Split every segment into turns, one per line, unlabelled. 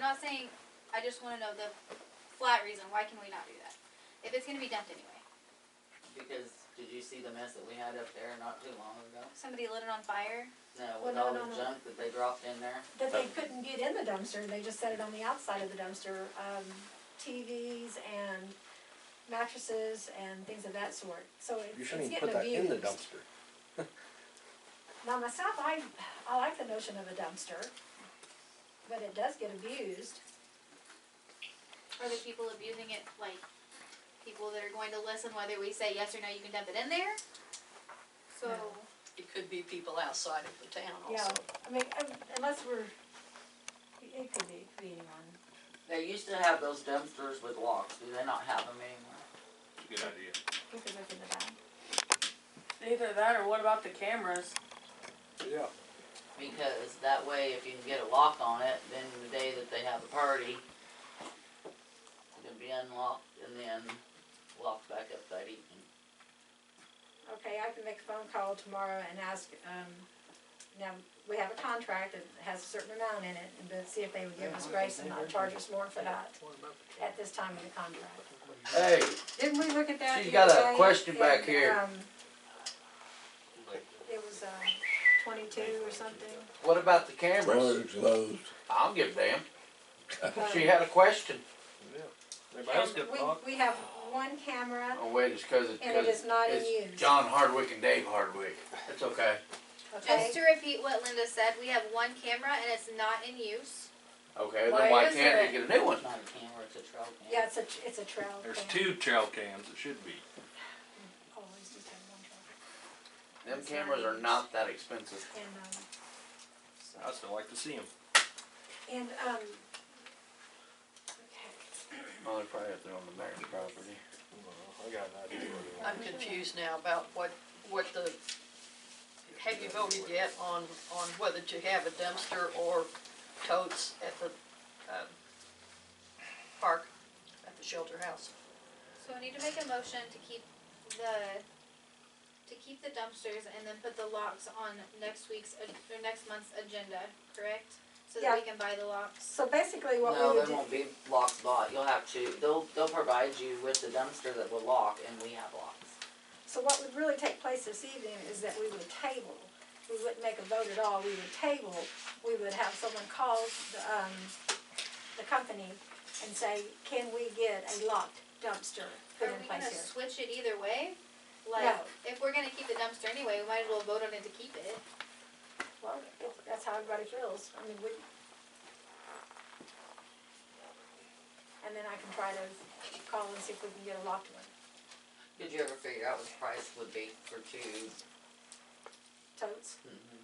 not saying, I just wanna know the flat reason, why can we not do that? If it's gonna be dumped anyway,
Because, did you see the mess that we had up there not too long ago?
somebody lit it on fire,
No,
Well,
with
no,
all
no,
the
no.
junk that they dropped in there?
That they couldn't get in the dumpster, they just set it on the outside of the dumpster, um, TVs and mattresses and things of that sort, so it-
You
it's
shouldn't
getting
even
abused.
put that in the dumpster.
Now myself, I, I like the notion of a dumpster, but it does get abused.
are the people abusing it, like, people that are going to listen whether we say yes or no, you can dump it in there? So,
No.
It could be people outside of the town
Yeah,
also.
I mean, um, unless we're, it- it could be, it could be anyone.
They used to have those dumpsters with locks, do they not have them anymore?
Good idea.
We could look into that.
Either that or what about the cameras?
Yeah.
Because that way, if you can get a lock on it, then the day that they have a party, it'll be unlocked and then locked back up that evening.
Okay, I can make a phone call tomorrow and ask, um, now, we have a contract that has a certain amount in it, and but see if they would give us grace and not charge us more for that at this time of the contract.
Hey,
Didn't we look at that
She's
the other
got a
day?
question back
And,
here.
um, It was, um, twenty-two or something.
what about the cameras?
Doors closed.
I'll give damn. She had a question.
Everybody else could
We,
talk.
we have one camera,
Oh, wait, it's cause it's.
And it
'cause
is not in
it's
use.
John Hardwick and Dave Hardwick. It's okay.
okay?
just to repeat what Linda said, we have one camera and it's not in use.
Okay,
Why
then why
is
can't they
it?
get a new one?
It's not a camera, it's a trail cam.
Yeah, it's a, tr- it's a trail.
There's
cam.
two trail cams, it should be.
Always just have one trail.
Them
It's not
cameras are
used.
not that expensive.
And, um, so-
I still like to see them.
And, um, okay.
Well, they're probably up there on the mayor's property.
I got an idea.
I'm confused now about what, what the, have you voted yet on, on whether to have a dumpster or totes at the, um, park, at the shelter house?
So I need to make a motion to keep the, to keep the dumpsters and then put the locks on next week's, ag- or next month's agenda, correct? So that we can buy the locks.
So basically what
No,
we would
there
do,
won't be locks bought, you'll have to, they'll, they'll provide you with the dumpster that will lock and we have locks.
so what would really take place this evening is that we would table. We wouldn't make a vote at all, we would table, we would have someone call the, um, the company and say, can we get a locked dumpster put
Are
in
we gonna
place here?
switch it either way? Like,
No.
if we're gonna keep the dumpster anyway, we might as well vote on it to keep it.
Well, if that's how everybody feels, I mean, we. And then I can try to call and see if we can get a locked one,
Did you ever figure out what the price would be for two?
totes.
Mm-hmm.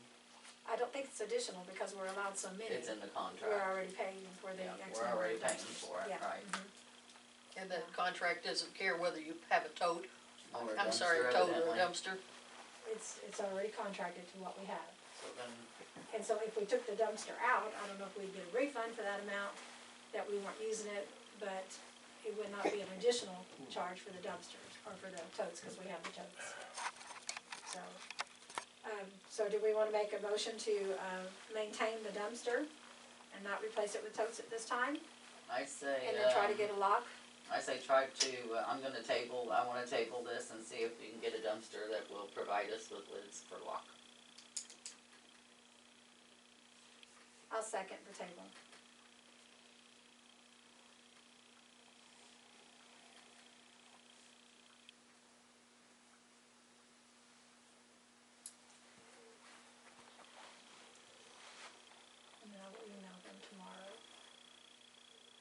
I don't think it's additional because we're allowed so many.
It's in the
We're
contract.
already paying for the
Yeah,
X
we're
number
already
of
paying
dumpsters.
for it,
Yeah.
right.
Mhm.
And the contract doesn't care whether you have a tote,
Or a
I'm sorry,
dumpster
a tote or
evidently.
a dumpster.
It's, it's already contracted to what we have.
So then,
And so if we took the dumpster out, I don't know if we'd get a refund for that amount, that we weren't using it, but it would not be an additional charge for the dumpsters, or for the totes, because we have the totes. So, um, so do we wanna make a motion to, uh, maintain the dumpster and not replace it with totes at this time?
I say,
And then try to
um,
get a lock?
I say try to, uh, I'm gonna table, I wanna table this and see if we can get a dumpster that will provide us with lids for lock.
I'll second the table. And then I will email them tomorrow.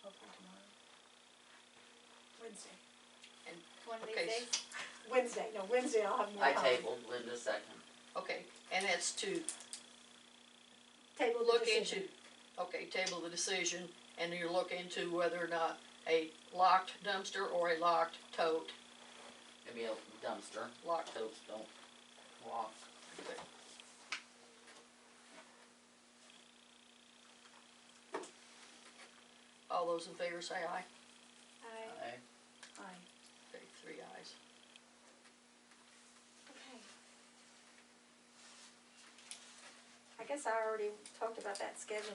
Hopefully tomorrow. Wednesday.
One of these
Okay,
days.
Wednesday, no, Wednesday I'll have more
I
time.
tabled Linda second.
Okay, and that's to
Table the
look
decision.
into, okay, table the decision, and you look into whether or not a locked dumpster or a locked tote,
It'd be a dumpster,
locked
totes don't lock.
All those in favor say aye.
Aye.
I-
Aye.
Okay, three ayes.
Okay. I guess I already talked about that schedule